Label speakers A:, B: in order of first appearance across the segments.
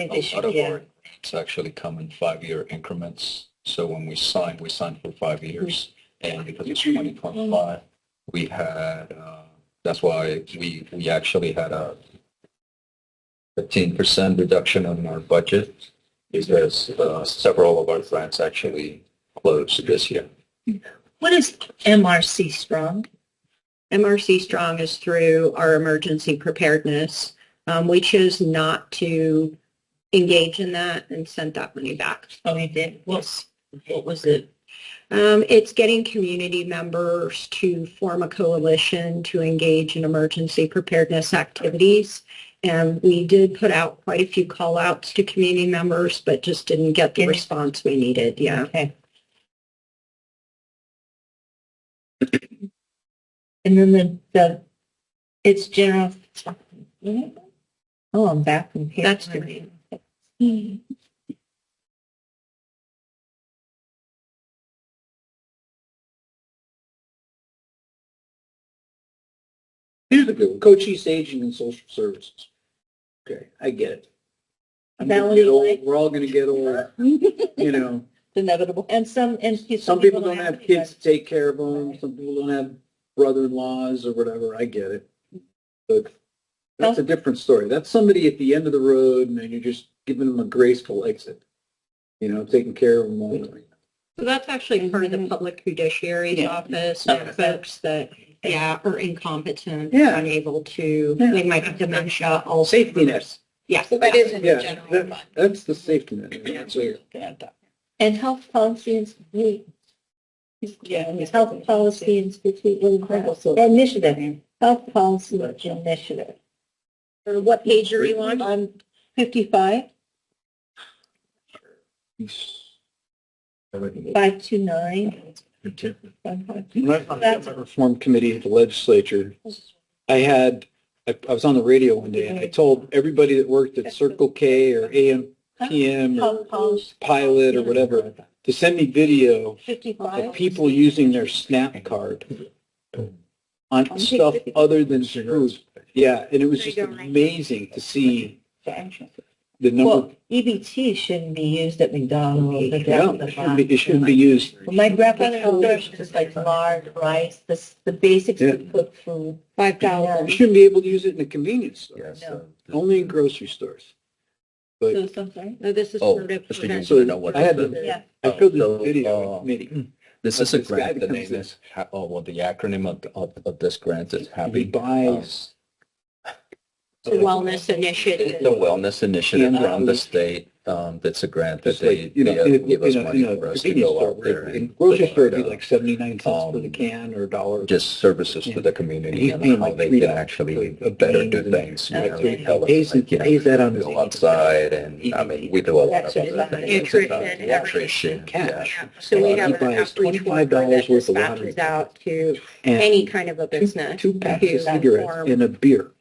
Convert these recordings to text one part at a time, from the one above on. A: think they
B: A lot
A: should,
B: of
A: yeah.
B: our grants actually come in five-year increments. So when we sign, we sign for five years. And because it's 2025, we had, uh, that's why we, we actually had a 15% reduction on our budget because uh, several of our grants actually closed this year.
A: What is MRC Strong? MRC Strong is through our emergency preparedness. Um, we chose not to engage in that and sent that money back.
C: Oh, you did? What's, what was it?
A: Um, it's getting community members to form a coalition to engage in emergency preparedness activities. And we did put out quite a few call outs to community members, but just didn't get the
C: Didn't-
A: response we needed. Yeah.
C: Okay. And then the, the, it's general. Oh, I'm back from here.
A: That's the,
D: Here's a good one, Cochise Aging and Social Services. Okay, I get it. I'm gonna get old, we're all gonna get old, you know,
C: Inevitable. And some, and.
D: some people don't have kids to take care of them, some people don't have brother-in-laws or whatever, I get it. But that's a different story, that's somebody at the end of the road and then you're just giving them a graceful exit. You know, taking care of them all.
A: so that's actually part of the
C: Mhm.
A: public judiciary's
C: Yeah.
A: office, and
C: Okay.
A: folks that, yeah, are incompetent,
D: Yeah.
A: unable to,
D: Yeah.
A: they might have dementia, all.
D: Safety nets,
A: Yes.
C: That is in
D: yeah, that- that's the safety net. That's it.
C: And health policy institute. Yeah. Health policy institute, what is that? Initiative, health policy initiative.
A: Or what page are you on?
C: I'm fifty-five,
B: Oh,
C: five two nine.
D: When I was on the reform committee at the legislature, I had, I, I was on the radio one day and I told everybody that worked at Circle K or AM, PM or
C: Health policy
D: Pilot or whatever to send me video of
C: fifty-five.
D: people using their SNAP card on stuff other than food. Yeah, and it was just amazing to see the number.
C: Well, EBT shouldn't be used at McDonald's. at
D: Yeah,
C: the
D: it shouldn't be, it shouldn't be used.
C: Well, My grandfather served just like lard, rice, the, s- the basics
D: Yeah.
C: of cooked food.
A: Five
D: You shouldn't be able to use it in a convenience store,
B: Yes.
C: so-
D: only in grocery stores.
C: So, so sorry.
A: No, this is
B: Oh,
A: sort of.
B: just to use
A: prevent-
D: So
B: You know what
D: I had
B: the-
D: the-
C: Yeah.
D: I showed this video
B: Oh,
D: in
B: uh,
D: committee.
B: This
D: But
B: is a
D: this guy
B: grant, the
D: becomes
B: name is, Ha- oh, well, the acronym of, of, of this grant is
D: He
B: Happy. um,
D: buys
A: It's a Wellness
B: It's
A: initiative.
B: a wellness initiative
D: Yeah.
B: from the state, um, that's a grant that
D: uh, just
B: they,
D: like, you know,
B: they uh,
D: in a,
B: give us
D: in a, in
B: money
D: a
B: for us to
D: convenience
B: go
D: store,
B: out there
D: in
B: and
D: grocery store, it'd be
B: provide, uh,
D: like seventy-nine cents for the
B: um,
D: can or a dollar.
B: just services to
D: Yeah.
B: the
D: And
B: community
D: he's
B: and
D: paying
B: how
D: like
B: they
D: three
B: can
D: dollars
B: actually
D: for a
B: better
D: bean
B: do
D: and
B: things. you
D: that's
B: know,
D: it.
B: they tell us,
D: Pays,
B: like, you know,
D: pays that on his.
B: Go outside and, I mean, we do a lot of
C: Exercise.
B: other things.
A: Nutrition,
B: about
A: everything.
B: Nutrition, yeah.
A: Yeah, So we
D: Uh,
A: have
D: he
A: an
D: buys
A: outreach worker
D: $25
A: that
D: worth of water.
A: dispatches out to
D: and
A: any kind of a
D: two-
A: business.
D: Two packs of
A: to
D: cigarettes
A: inform
D: and a beer.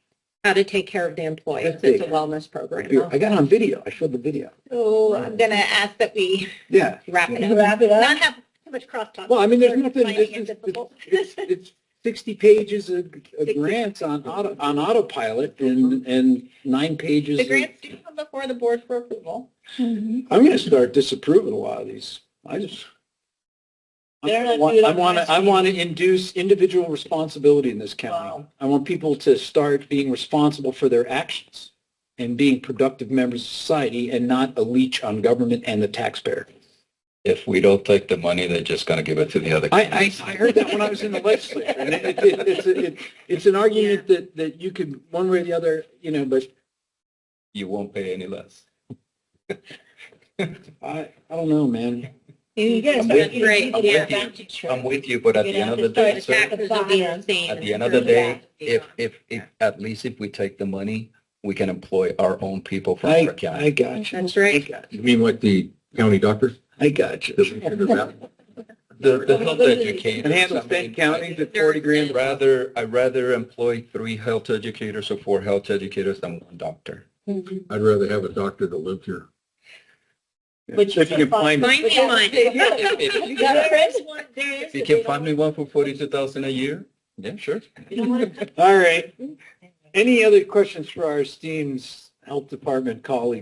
A: How to take care of the employees.
D: That's
A: It's a
D: big.
A: wellness
D: A beer.
A: program.
D: I got it on video. I showed the video.
A: So I'm going to ask that we
D: Yeah.
A: wrap it up.
C: Wrap it
A: Not
C: up.
A: have too much crosstalk.
D: Well, I mean, there's nothing,
A: Finding it
D: it's,
A: difficult.
D: it's, it's sixty pages of, of
A: 60.
D: grants on auto, on autopilot and, and nine pages.
A: The
D: of-
A: grants do come before the board for approval.
C: Mm-hmm.
D: I'm gonna start disapproving a lot of these. I just.
C: They're
D: I
C: not
D: want,
C: good
D: I
C: on
D: want to, I
C: rescue.
D: want to induce individual responsibility in this county.
C: Wow.
D: I want people to start being responsible for their actions and being productive members of society and not a leech on government and the taxpayer.
B: If we don't take the money, they're just gonna give it to the other.
D: I, I, I heard that when I was in the legislature. And it, it, it's, a- it, it's an argument that, that you could, one way or the other, you know, but
B: You won't pay any less.
D: I, I don't know, man.
C: You guys
B: I'm
C: are
B: with
A: you.
C: great.
A: I'm
C: Yeah.
B: with you.
C: Back to church.
B: I'm with you, but at the end of the
C: You're gonna
B: day,
C: have to start
B: sir,
C: at
A: Taxes will be the same.
B: at the end of the day, if, if, if, at least if we take the money, we can employ our own people from
D: I,
B: our county.
D: I got you.
A: That's
D: I
A: right.
D: got you.
B: You mean like the county doctor?
D: I got you.
B: The, the health educators.
D: And handle
B: I mean,
D: Benton County to
A: They're-
D: forty grand.
B: I'd rather, I'd rather employ three health educators or four health educators than one doctor. I'd rather have a doctor that lived here.
C: Which
D: So if you can find.
A: Find me one.
C: You got friends? There is.
B: If you can find me one for forty-two thousand a year, yeah, sure.
D: All right. Any other questions for our esteemed health department colleagues?